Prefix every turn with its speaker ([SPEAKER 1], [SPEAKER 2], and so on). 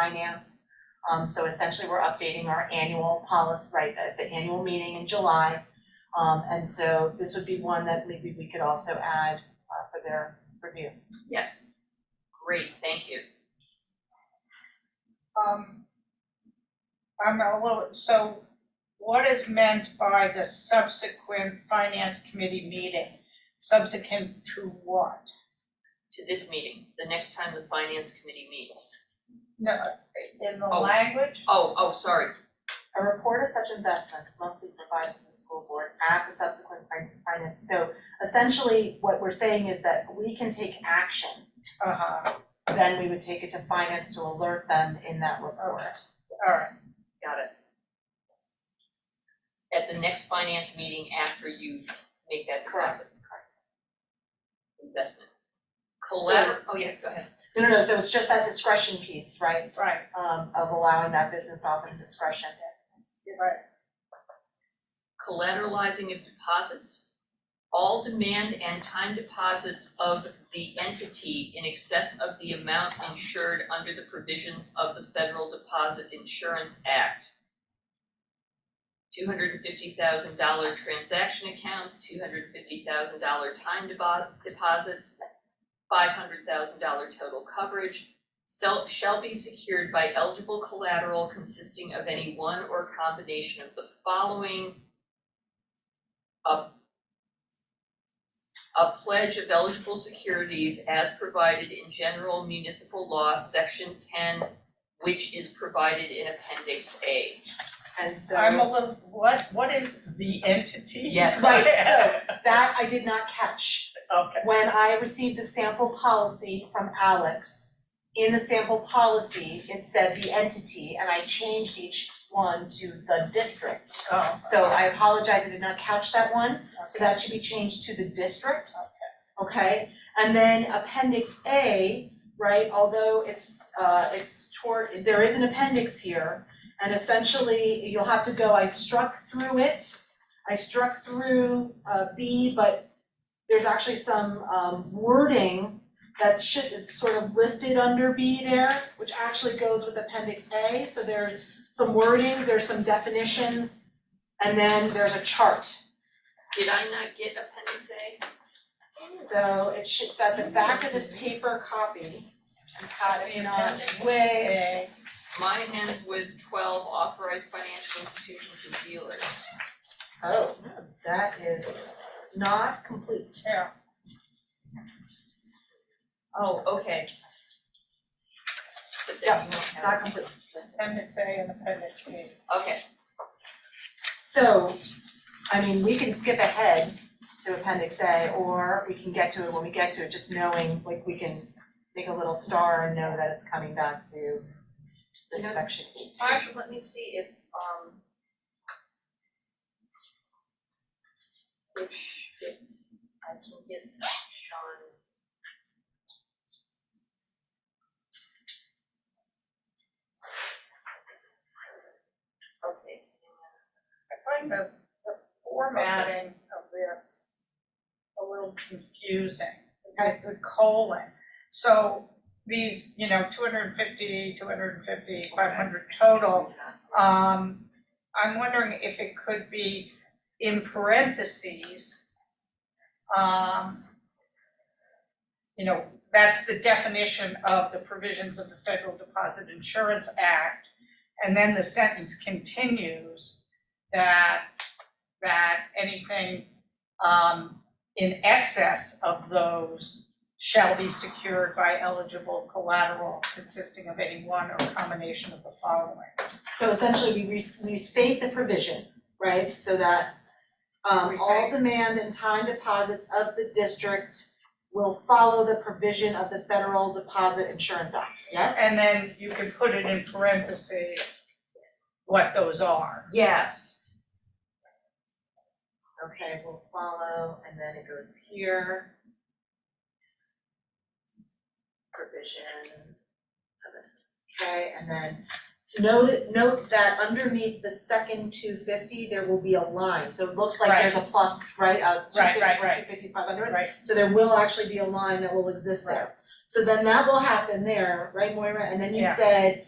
[SPEAKER 1] finance. Um, so essentially, we're updating our annual policy, right, the, the annual meeting in July. Um, and so this would be one that maybe we could also add, uh, for their review.
[SPEAKER 2] Yes. Great, thank you.
[SPEAKER 3] um, I'm a little, so what is meant by the subsequent finance committee meeting? Subsequent to what?
[SPEAKER 2] To this meeting, the next time the finance committee meets.
[SPEAKER 3] No, in the
[SPEAKER 2] Oh.
[SPEAKER 3] language?
[SPEAKER 2] Oh, oh, sorry,
[SPEAKER 1] A report of such investments must be provided to the school board at the subsequent fin- finance. So essentially, what we're saying is that we can take action,
[SPEAKER 3] Uh-huh,
[SPEAKER 1] then we would take it to finance to alert them in that report.
[SPEAKER 3] Okay. all right,
[SPEAKER 1] Got it.
[SPEAKER 2] at the next finance meeting after you make that deposit. Investment. Collabor, oh, yes, go ahead.
[SPEAKER 1] No, no, no, so it's just that discretion piece, right?
[SPEAKER 3] right,
[SPEAKER 1] um of allowing that business office discretion.
[SPEAKER 3] right.
[SPEAKER 2] Collateralizing of deposits. All demand and time deposits of the entity in excess of the amount insured under the provisions of the Federal Deposit Insurance Act. two hundred and fifty thousand dollar transaction accounts, two hundred and fifty thousand dollar time depo- deposits, five hundred thousand dollar total coverage, sel- shall be secured by eligible collateral consisting of any one or combination of the following. A a pledge of eligible securities as provided in general municipal law, section ten, which is provided in appendix A.
[SPEAKER 1] And
[SPEAKER 3] I'm
[SPEAKER 1] so
[SPEAKER 3] a little, what, what is the entity?
[SPEAKER 2] Yes.
[SPEAKER 1] Right, so- that I did not catch.
[SPEAKER 3] Okay,
[SPEAKER 1] When I received the sample policy from Alex, in the sample policy, it said the entity and I changed each one to the district.
[SPEAKER 3] oh.
[SPEAKER 1] So I apologize, I did not catch that one, so
[SPEAKER 3] okay.
[SPEAKER 1] that should be changed to the district. Okay, and then appendix A, right, although it's uh it's toward, there is an appendix here. And essentially, you'll have to go, I struck through it, I struck through uh B, but there's actually some um wording that should is sort of listed under B there, which actually goes with appendix A, so there's some wording, there's some definitions, and then there's a chart.
[SPEAKER 2] Did I not get appendix A?
[SPEAKER 1] So it should, it's at the back of this paper copy. And Pat, if
[SPEAKER 3] The
[SPEAKER 1] not,
[SPEAKER 3] appendix
[SPEAKER 1] way,
[SPEAKER 3] A,
[SPEAKER 2] Mine ends with twelve authorized financial institutions and dealers.
[SPEAKER 1] oh, that is not complete.
[SPEAKER 3] yeah,
[SPEAKER 2] Oh, okay. But
[SPEAKER 1] Yeah,
[SPEAKER 2] then you don't have,
[SPEAKER 1] Not complete.
[SPEAKER 3] appendix A and appendix B.
[SPEAKER 2] okay,
[SPEAKER 1] So, I mean, we can skip ahead to appendix A or we can get to it when we get to it, just knowing, like, we can make a little star and know that it's coming back to this
[SPEAKER 2] Yeah.
[SPEAKER 1] section eight.
[SPEAKER 2] Marshall, let me see if, um. If, if I can get Sean's. Okay,
[SPEAKER 3] I find the, the formatting of this a little confusing with the colon. So these, you know, 250, 250, 500 total, um, I'm wondering if it could be in parentheses. Um, you know, that's the definition of the provisions of the Federal Deposit Insurance Act. And then the sentence continues that, that anything, um, in excess of those shall be secured by eligible collateral consisting of any one or combination of the following.
[SPEAKER 1] So essentially, we res- we state the provision, right, so that um
[SPEAKER 3] We
[SPEAKER 1] all
[SPEAKER 3] say-
[SPEAKER 1] demand and time deposits of the district will follow the provision of the Federal Deposit Insurance Act, yes?
[SPEAKER 3] And then you can put it in parentheses, what those are.
[SPEAKER 2] yes,
[SPEAKER 1] Okay, will follow, and then it goes here. Provision of it, okay, and then note note that underneath the second two fifty, there will be a line, so it looks like
[SPEAKER 3] Right.
[SPEAKER 1] there's a plus, right, a two
[SPEAKER 3] Right,
[SPEAKER 1] fifty
[SPEAKER 3] right,
[SPEAKER 1] plus
[SPEAKER 3] right.
[SPEAKER 1] two fifty is five hundred.
[SPEAKER 3] Right.
[SPEAKER 1] So there will actually be a line that will exist there. So then that will happen there, right Moira? And then you
[SPEAKER 3] Yeah.
[SPEAKER 1] said